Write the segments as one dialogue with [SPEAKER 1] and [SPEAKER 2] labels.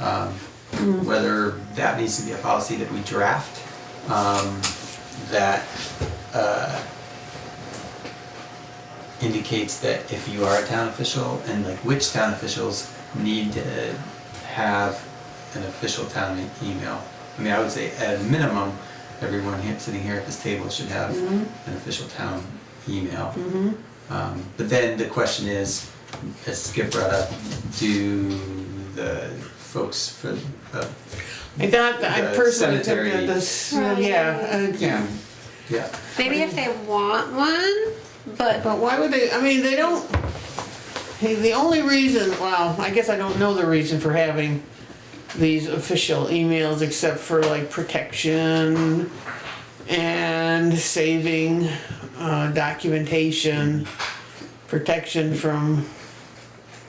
[SPEAKER 1] Um, whether that needs to be a policy that we draft, um, that, uh, indicates that if you are a town official and like which town officials need to have an official town e- email. I mean, I would say at a minimum, everyone here, sitting here at this table should have an official town email. Um, but then the question is, as Skip brought up, do the folks for, uh,
[SPEAKER 2] I thought, I
[SPEAKER 1] The
[SPEAKER 2] personally think
[SPEAKER 1] cemetery.
[SPEAKER 2] that this,
[SPEAKER 3] Right.
[SPEAKER 2] yeah, uh,
[SPEAKER 1] yeah, yeah.
[SPEAKER 3] Maybe if they want one, but
[SPEAKER 2] But why would they, I mean, they don't, hey, the only reason, well, I guess I don't know the reason for having these official emails except for like protection and saving uh, documentation, protection from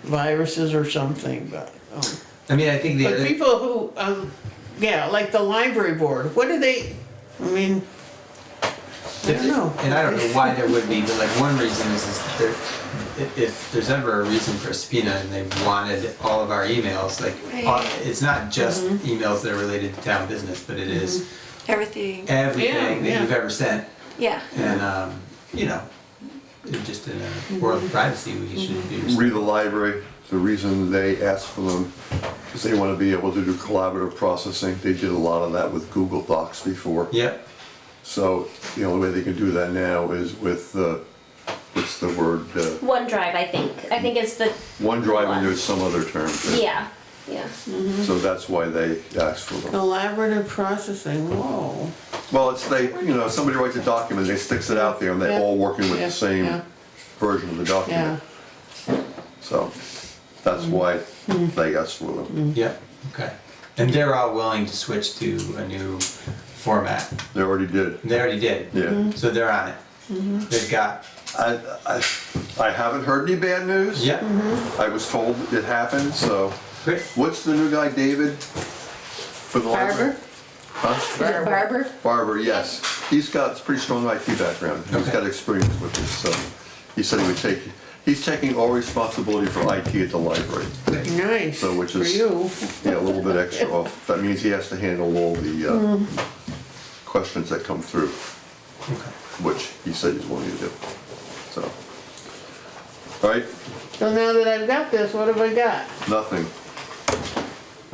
[SPEAKER 2] viruses or something, but. um,
[SPEAKER 1] I mean, I think the
[SPEAKER 2] But
[SPEAKER 1] other,
[SPEAKER 2] people who, um, yeah, like the library board, what do they, I mean, I don't know.
[SPEAKER 1] and I don't know why there would be, but like one reason is, is that there, i- if there's ever a reason for a subpoena and they wanted all of our emails, like, all-
[SPEAKER 3] Right.
[SPEAKER 1] it's not just
[SPEAKER 2] Mm-hmm.
[SPEAKER 1] emails that are related to town business, but it is
[SPEAKER 3] everything,
[SPEAKER 1] everything
[SPEAKER 2] Yeah,
[SPEAKER 1] that you've
[SPEAKER 2] yeah.
[SPEAKER 1] ever sent.
[SPEAKER 3] yeah.
[SPEAKER 1] And, um, you know, it just in a world
[SPEAKER 2] Mm-hmm.
[SPEAKER 1] of privacy, we should be.
[SPEAKER 4] Read the library, the reason they asked for them is they want to be able to do collaborative processing. They did a lot of that with Google Docs before.
[SPEAKER 1] Yep,
[SPEAKER 4] So the only way they can do that now is with, uh, what's the word, uh,
[SPEAKER 5] OneDrive, I think. I think it's the
[SPEAKER 4] OneDrive and there's some other term. for it.
[SPEAKER 5] yeah, yeah.
[SPEAKER 2] Mm-hmm.
[SPEAKER 4] So that's why they asked for
[SPEAKER 2] Oh.
[SPEAKER 4] them.
[SPEAKER 2] Collaborative processing, whoa.
[SPEAKER 4] Well, it's they, you know, somebody writes a document, they sticks it out there and they're all working with
[SPEAKER 2] Yeah,
[SPEAKER 4] the same
[SPEAKER 2] yeah.
[SPEAKER 4] version of the
[SPEAKER 2] Yeah, Mm.
[SPEAKER 4] document. So that's why they asked for them.
[SPEAKER 1] yep, okay. And they're all willing to switch to a new format.
[SPEAKER 4] They already did,
[SPEAKER 1] They already did.
[SPEAKER 3] Mm-hmm.
[SPEAKER 4] yeah.
[SPEAKER 1] So they're on it. They've got,
[SPEAKER 4] I, I, I haven't heard any bad news.
[SPEAKER 1] yep,
[SPEAKER 3] Mm-hmm.
[SPEAKER 4] I was told it happened, so.
[SPEAKER 1] great.
[SPEAKER 4] What's the new guy, David? For the library?
[SPEAKER 5] Barber?
[SPEAKER 4] Huh?
[SPEAKER 5] Is it Barber?
[SPEAKER 4] Barber, yes. He's got a pretty strong IT background. He's
[SPEAKER 1] Okay.
[SPEAKER 4] got experience with this, so he said he would take, he's taking all responsibility for IT at the library.
[SPEAKER 2] nice,
[SPEAKER 4] So which
[SPEAKER 2] for
[SPEAKER 4] is-
[SPEAKER 2] you.
[SPEAKER 4] Yeah, a little bit extra off. That means he has to handle all the
[SPEAKER 5] Mm.
[SPEAKER 4] uh, questions that come through,
[SPEAKER 1] Okay.
[SPEAKER 4] which he said he's willing to do. So, all right,
[SPEAKER 2] So now that I've got this, what have I got?
[SPEAKER 4] nothing.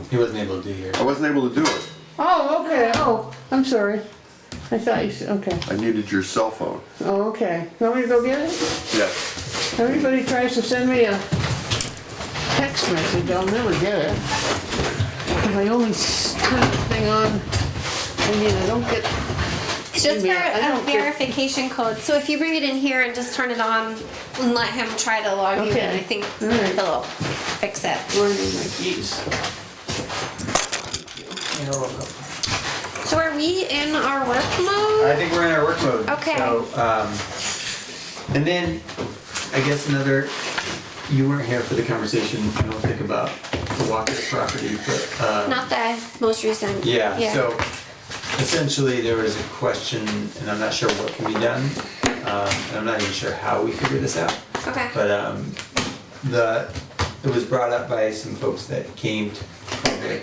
[SPEAKER 1] He wasn't able to do yours.
[SPEAKER 4] I wasn't able to do it.
[SPEAKER 2] Oh, okay, oh, I'm sorry. I thought you said, okay,
[SPEAKER 4] I needed your cell phone.
[SPEAKER 2] oh, okay. Want me to go get it?
[SPEAKER 4] Yes.
[SPEAKER 2] Everybody tries to send me a text message, I'll never get it. If I only s- turn the thing on, I mean, I don't get,
[SPEAKER 3] It's just for
[SPEAKER 2] Email. I
[SPEAKER 3] a
[SPEAKER 2] don't get-
[SPEAKER 3] verification code. So if you bring it in here and just turn it on and let him try to log you in,
[SPEAKER 2] Okay.
[SPEAKER 3] I think
[SPEAKER 2] All right.
[SPEAKER 3] he'll fix it.
[SPEAKER 2] where are my keys?
[SPEAKER 1] You're welcome.
[SPEAKER 3] So are we in our work
[SPEAKER 1] I
[SPEAKER 3] mode?
[SPEAKER 1] think we're in our work mode.
[SPEAKER 3] Okay.
[SPEAKER 1] So, um, and then, I guess another, you weren't here for the conversation, I don't think, about the Walker's property, but, um,
[SPEAKER 3] Not the most recent.
[SPEAKER 1] yeah, so essentially there was a question, and I'm not sure what can be done, um, and I'm not even sure how we figure this out.
[SPEAKER 3] Okay.
[SPEAKER 1] But, um, the, it was brought up by some folks that came to, uh,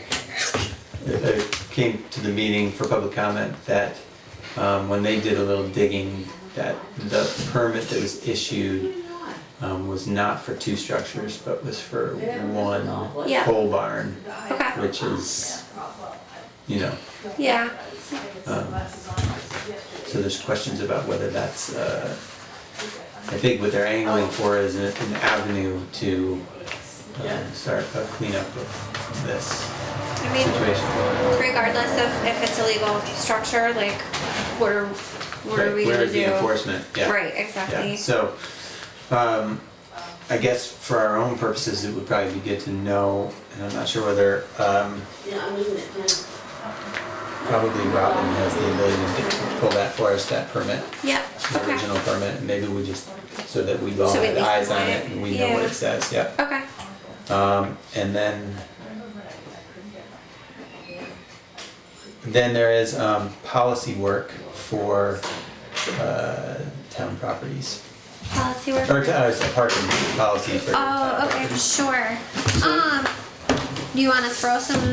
[SPEAKER 1] came to the meeting for public comment that, um, when they did a little digging, that the permit that was issued, um, was not for two structures, but was for one
[SPEAKER 3] Yeah.
[SPEAKER 1] pole barn,
[SPEAKER 3] Okay.
[SPEAKER 1] which is, you know,
[SPEAKER 3] Yeah.
[SPEAKER 1] So there's questions about whether that's, uh, I think what they're angling for is a- an avenue to um, start a cleanup of this
[SPEAKER 3] I mean,
[SPEAKER 1] situation.
[SPEAKER 3] regardless of if it's a legal structure, like what are what are
[SPEAKER 1] Right,
[SPEAKER 3] we
[SPEAKER 1] Where
[SPEAKER 3] gonna
[SPEAKER 1] is
[SPEAKER 3] do?
[SPEAKER 1] the enforcement? Yeah.
[SPEAKER 3] Right.
[SPEAKER 1] Yeah,
[SPEAKER 3] Exactly.
[SPEAKER 1] so, um, I guess for our own purposes, it would probably be good to know, and I'm not sure whether, um, probably Robin has the ability to pull that for us, that permit,
[SPEAKER 3] Yep.
[SPEAKER 1] the
[SPEAKER 3] Okay.
[SPEAKER 1] original permit, and maybe we just, so that we've all
[SPEAKER 3] So we
[SPEAKER 1] had
[SPEAKER 3] at least
[SPEAKER 1] eyes
[SPEAKER 3] know
[SPEAKER 1] on
[SPEAKER 3] it.
[SPEAKER 1] it and we know what
[SPEAKER 3] Yeah.
[SPEAKER 1] it says, yeah.
[SPEAKER 3] Okay.
[SPEAKER 1] Um, and then, then there is, um, policy work for, uh, town properties.
[SPEAKER 3] Policy work.
[SPEAKER 1] Or, uh, sorry, parking policy for. town
[SPEAKER 3] Oh, okay,
[SPEAKER 1] properties.
[SPEAKER 3] sure. Um, you wanna throw some